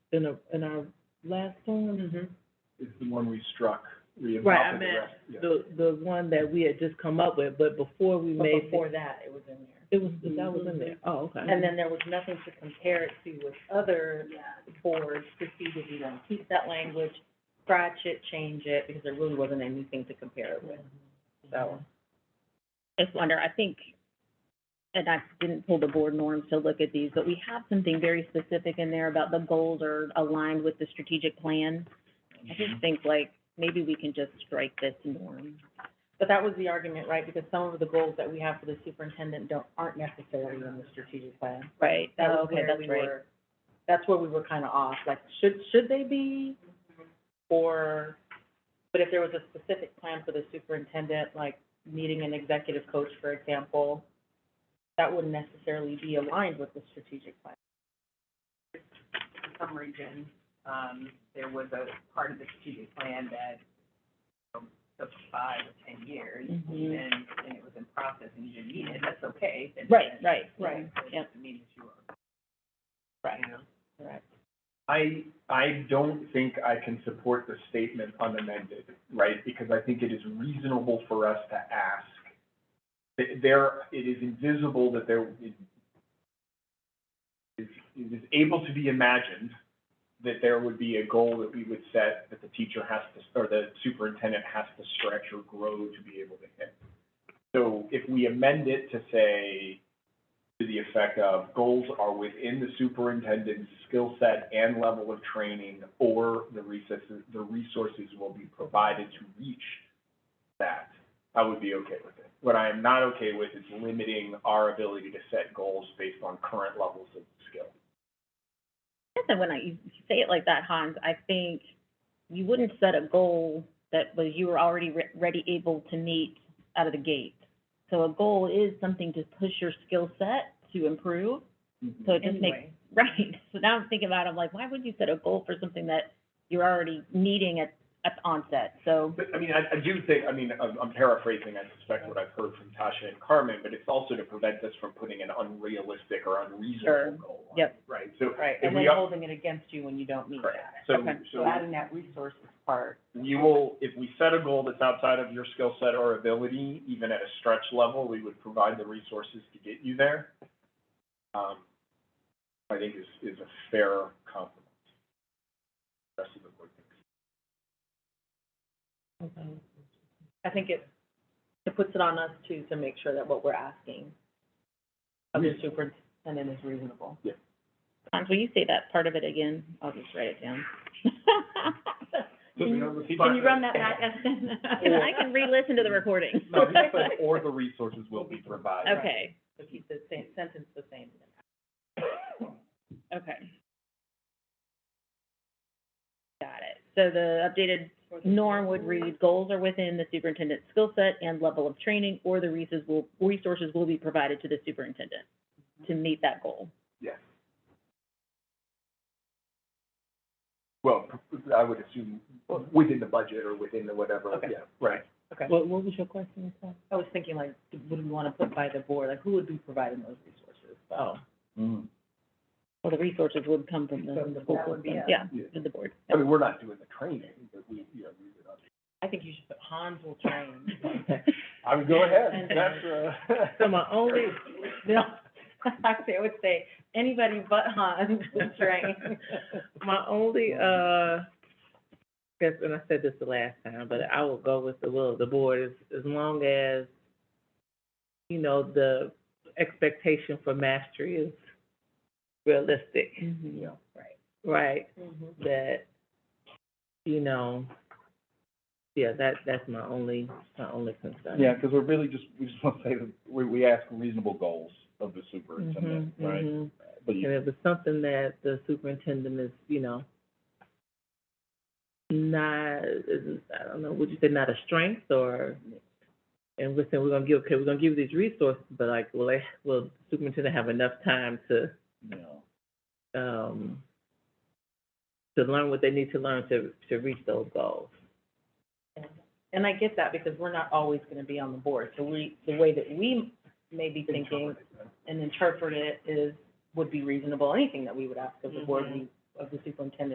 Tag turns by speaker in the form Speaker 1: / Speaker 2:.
Speaker 1: in a, in our last one?
Speaker 2: is the one we struck, we
Speaker 1: Right, I
Speaker 2: adopted the
Speaker 1: meant
Speaker 2: rest, yeah.
Speaker 1: The, the one that we had just come up with, but before we
Speaker 3: But
Speaker 1: made,
Speaker 3: before that, Mm-hmm. it was in there.
Speaker 1: it was, that was in there, oh, okay.
Speaker 3: And then there was nothing to compare it to with other boards to see did you want to keep that language, scratch it, change it, because there really wasn't anything to compare it with, so.
Speaker 4: just wonder, I think, and I didn't pull the board norms to look at these, but we have something very specific in there about the goals are aligned with the strategic plan. I just think like, maybe we can just strike this norm.
Speaker 3: But that was the argument, right, because some of the goals that we have for the superintendent don't, aren't necessarily in the strategic plan.
Speaker 4: Right, Oh,
Speaker 3: That was
Speaker 4: okay,
Speaker 3: where
Speaker 4: that's
Speaker 3: we
Speaker 4: right.
Speaker 3: were, that's where we were kind of off, like, should, should they be? Or, but if there was a specific plan for the superintendent, like needing an executive coach, for example, that wouldn't necessarily be aligned with the strategic plan.
Speaker 5: some region, um, there was a part of the strategic plan that um, took five or ten years, and,
Speaker 4: Mhm.
Speaker 5: and it was in process and you didn't need it, that's okay. That
Speaker 4: Right,
Speaker 5: doesn't-
Speaker 4: right,
Speaker 3: Right.
Speaker 5: That
Speaker 4: Yep.
Speaker 5: doesn't mean that you are. Right.
Speaker 3: Correct.
Speaker 2: I, I don't think I can support the statement unamended, right? Because I think it is reasonable for us to ask. Th- There, it is invisible that there is, is- it is able to be imagined that there would be a goal that we would set that the teacher has to, or the superintendent has to stretch or grow to be able to hit. So if we amend it to say, to the effect of goals are within the superintendent's skill set and level of training, or the resources, the resources will be provided to reach that, I would be okay with it. What I am not okay with is limiting our ability to set goals based on current levels of skill.
Speaker 4: guess that when I, you say it like that, Hans, I think you wouldn't set a goal that was, you were already re- ready, able to meet out of the gate. So a goal is something to push your skill set to improve, so it just makes
Speaker 3: Anyway,
Speaker 4: Right. So now I'm thinking about, it, I'm like, why would you set a goal for something that you're already needing at, at the onset? So,
Speaker 2: But, I mean, I, I do think, I mean, I'm I'm paraphrasing, I suspect what I've heard from Tasha and Carmen, but it's also to prevent us from putting an unrealistic or
Speaker 4: Sure.
Speaker 2: unreasonable goal. on it,
Speaker 4: Yep.
Speaker 2: Right, so.
Speaker 3: Right,
Speaker 2: if
Speaker 3: and
Speaker 2: we
Speaker 3: then
Speaker 2: are-
Speaker 3: holding it against you when you don't meet
Speaker 2: Correct.
Speaker 3: that.
Speaker 2: So,
Speaker 4: Okay.
Speaker 2: so
Speaker 3: So adding that resources part,
Speaker 2: we will, if we set a goal that's outside of your skill set or ability, even at a stretch level, we would provide the resources to get you there. Um, I think is, is a fair compliment. Rest of the board thinks.
Speaker 3: I think it, it puts it on us too, to make sure that what we're asking of the superintendent is reasonable.
Speaker 4: Hans, will you say that part of it again? I'll just write it down.
Speaker 2: Can
Speaker 4: Can you run that back, Evan? And I can re-listen to the recording.
Speaker 2: No, he said, or the resources will be provided.
Speaker 4: Okay,
Speaker 3: So keep the same, sentence the same.
Speaker 4: okay. Got it. So the updated norm would read, goals are within the superintendent's skill set and level of training, or the resources will, resources will be provided to the superintendent to meet that goal.
Speaker 2: Yes. Well, I would assume within the budget or within the whatever,
Speaker 3: Okay.
Speaker 2: yeah, right.
Speaker 1: What, what was your question, Nicole?
Speaker 3: I was thinking like, would we want to put by the board, like who would be providing those resources?
Speaker 1: Oh,
Speaker 2: Mm-hmm.
Speaker 4: Well, the resources would come from the
Speaker 3: From the
Speaker 4: school
Speaker 3: board,
Speaker 4: system,
Speaker 3: yeah.
Speaker 4: yeah,
Speaker 2: Yeah.
Speaker 4: from the board.
Speaker 2: I mean, we're not doing the training, but we, you know, we would.
Speaker 3: I think you should put Hans will train.
Speaker 2: I would go ahead, that's, uh.
Speaker 1: so my only,
Speaker 3: No, actually, I would say anybody but Hans will train.
Speaker 1: my only, uh, guess, and I said this the last time, but I will go with the will of the board, as, as long as, you know, the expectation for mastery is realistic,
Speaker 2: Yeah.
Speaker 1: right?
Speaker 3: Mhm.
Speaker 1: that, you know, yeah, that, that's my only, my only concern.
Speaker 6: Yeah, because we're really just, we just want to say that we, we ask reasonable goals of the superintendent,
Speaker 1: Mhm,
Speaker 2: Mm-hmm.
Speaker 6: right?
Speaker 1: mhm.
Speaker 6: But
Speaker 1: And
Speaker 6: you,
Speaker 1: it was something that the superintendent is, you know, not, is, I don't know, would you say not a strength or? And we're saying, we're gonna give, okay, we're gonna give you these resources, but like, will they, will the superintendent have enough time to,
Speaker 6: you know,
Speaker 1: um, to learn what they need to learn to, to reach those goals?
Speaker 3: And I get that because we're not always going to be on the board. So we, the way that we may be thinking and interpret it is, would be reasonable. Anything that we would ask of the board, we
Speaker 1: of the superintendent